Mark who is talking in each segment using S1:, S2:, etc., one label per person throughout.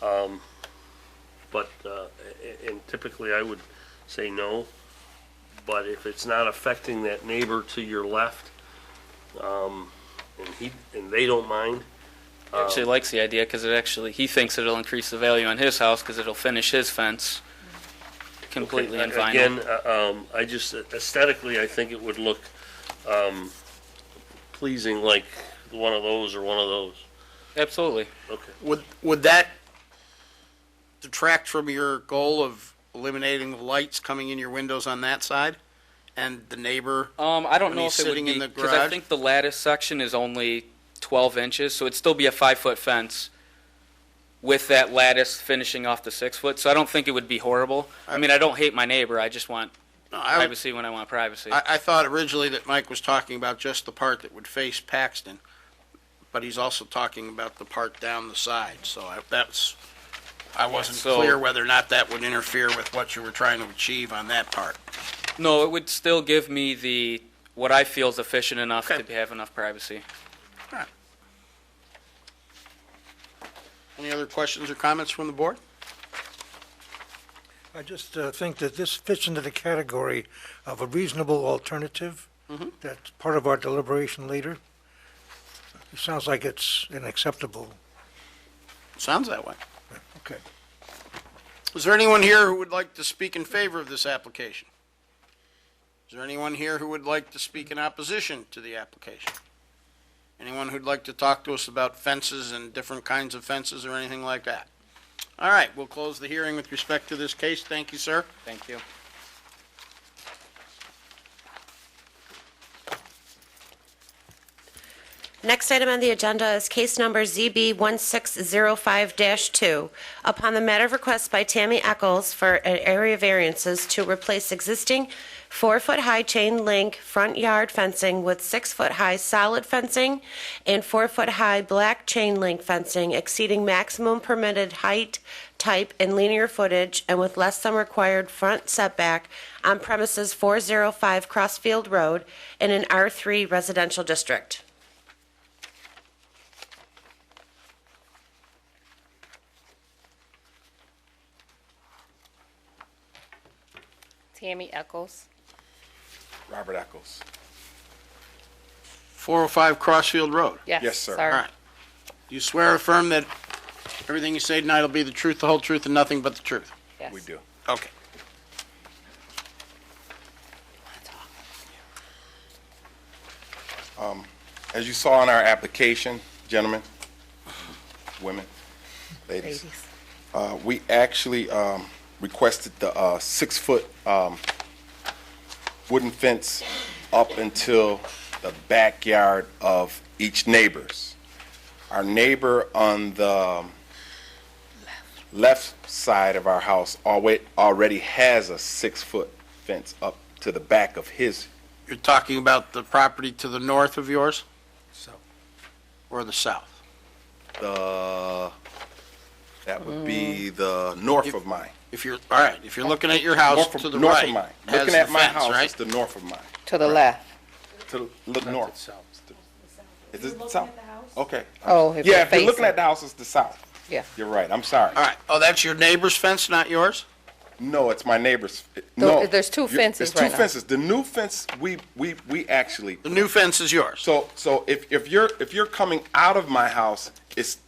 S1: Um, But, uh, a- and typically I would say no, but if it's not affecting that neighbor to your left, um, and he, and they don't mind,
S2: He actually likes the idea because it actually, he thinks it'll increase the value on his house because it'll finish his fence completely in vinyl.
S1: Again, uh, um, I just, aesthetically, I think it would look, um, pleasing like one of those or one of those.
S2: Absolutely.
S1: Okay.
S3: Would, would that detract from your goal of eliminating the lights coming in your windows on that side? And the neighbor,
S2: Um, I don't
S3: When
S2: know
S3: he's
S2: if it would
S3: sitting in
S2: be,
S3: the
S2: because I
S3: garage?
S2: think the lattice section is only 12 inches, so it'd still be a five-foot fence with that lattice finishing off the six-foot, so I don't think it would be horrible. I mean, I don't hate my neighbor, I just want
S3: No, I, would-
S2: privacy when I want privacy.
S3: I, I thought originally that Mike was talking about just the part that would face Paxton, but he's also talking about the part down the side, so I, that's, I wasn't
S2: So-
S3: clear whether or not that would interfere with what you were trying to achieve on that part.
S2: No, it would still give me the, what I feel is efficient enough
S3: Okay.
S2: to have enough privacy.
S3: Any other questions or comments from the board?
S4: I just uh, think that this fits into the category of a reasonable alternative. That's part of our deliberation later. It sounds like it's an acceptable.
S3: Sounds that way.
S4: Okay.
S3: Is there anyone here who would like to speak in favor of this application? Is there anyone here who would like to speak in opposition to the application? Anyone who'd like to talk to us about fences and different kinds of fences or anything like that? All right, we'll close the hearing with respect to this case. Thank you, sir.
S2: Thank you.
S5: Next item on the agenda is case number ZB 1605-2. Upon the matter of request by Tammy Eccles for an area variances to replace existing four-foot-high chain link front yard fencing with six-foot-high solid fencing and four-foot-high black chain link fencing exceeding maximum permitted height, type, and linear footage and with less than required front setback on premises 405 Crossfield Road in an R3 residential district.
S6: Tammy Eccles.
S7: Robert Eccles.
S3: 405 Crossfield Road.
S6: Yes.
S7: Yes, sir.
S3: All right. Do you swear or affirm that everything you say tonight will be the truth, the whole truth, and nothing but the truth?
S6: Yes.
S7: We do.
S3: Okay.
S7: As you saw in our application, gentlemen, women, ladies,
S6: Ladies.
S7: uh, we actually um, requested the uh, six-foot um, wooden fence up until the backyard of each neighbor's. Our neighbor on the um, left side of our house alwa- already has a six-foot fence up to the back of his
S3: You're talking about the property to the north of yours?
S7: South.
S3: Or the south?
S7: the, that would be
S6: Mm.
S7: the north of mine.
S3: If you're, all right, if you're looking at your house
S7: North
S3: to
S7: of-
S3: the
S7: north of
S3: right.
S7: mine.
S3: has
S7: Looking
S3: the
S7: at my
S3: fence,
S7: house,
S3: right?
S7: it's the north of mine.
S6: To the left.
S7: To look north. Is it the south? Okay.
S6: Oh, if
S7: Yeah,
S6: you're
S7: if you're looking
S6: facing-
S7: at the house, it's the south.
S6: Yeah.
S7: You're right, I'm sorry.
S3: All right, oh, that's your neighbor's fence, not yours?
S7: No, it's my neighbor's, no.
S6: there's two
S7: You-
S6: fences
S7: It's
S6: right
S7: two
S6: now.
S7: fences. The new fence, we, we, we actually,
S3: The new fence is yours?
S7: so, so if, if you're, if you're coming out of my house, it's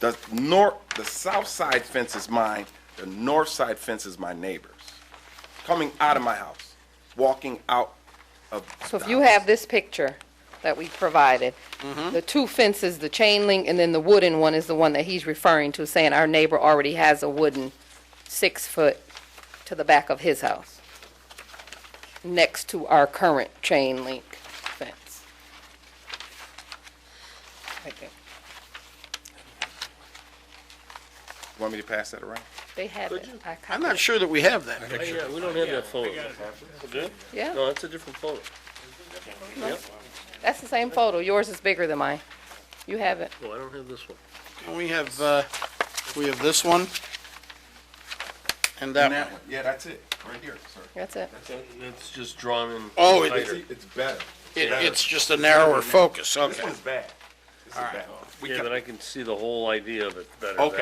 S7: the north, the south side fence is mine, the north side fence is my neighbor's. Coming out of my house, walking out of.
S6: So if
S7: the
S6: you
S7: house.
S6: have this picture that we provided,
S7: Mm-hmm.
S6: the two fences, the chain link, and then the wooden one is the one that he's referring to, saying our neighbor already has a wooden six-foot to the back of his house, next to our current chain link fence. Right there.
S7: Want me to pass that around?
S6: They have it. I
S3: I'm
S6: copied
S3: not
S6: it.
S3: sure that we have that.
S1: Oh, Yeah, we don't have that photo. Do we?
S6: Yeah.
S1: No, that's a different photo.
S6: That's the same photo. Yours is bigger than mine. You have it.
S1: No, Oh, I don't have this one.
S3: We have, uh, we have this one and that one.
S7: Yeah, that's it, right here, sir.
S6: That's it.
S1: It's just drawn in.
S3: Oh, it-
S1: tighter.
S7: It's better.
S3: It- It's just a narrower focus, okay.
S7: This one's bad. This is bad. We
S1: Yeah,
S7: got-
S1: but I can see the whole idea of it better.
S7: Okay.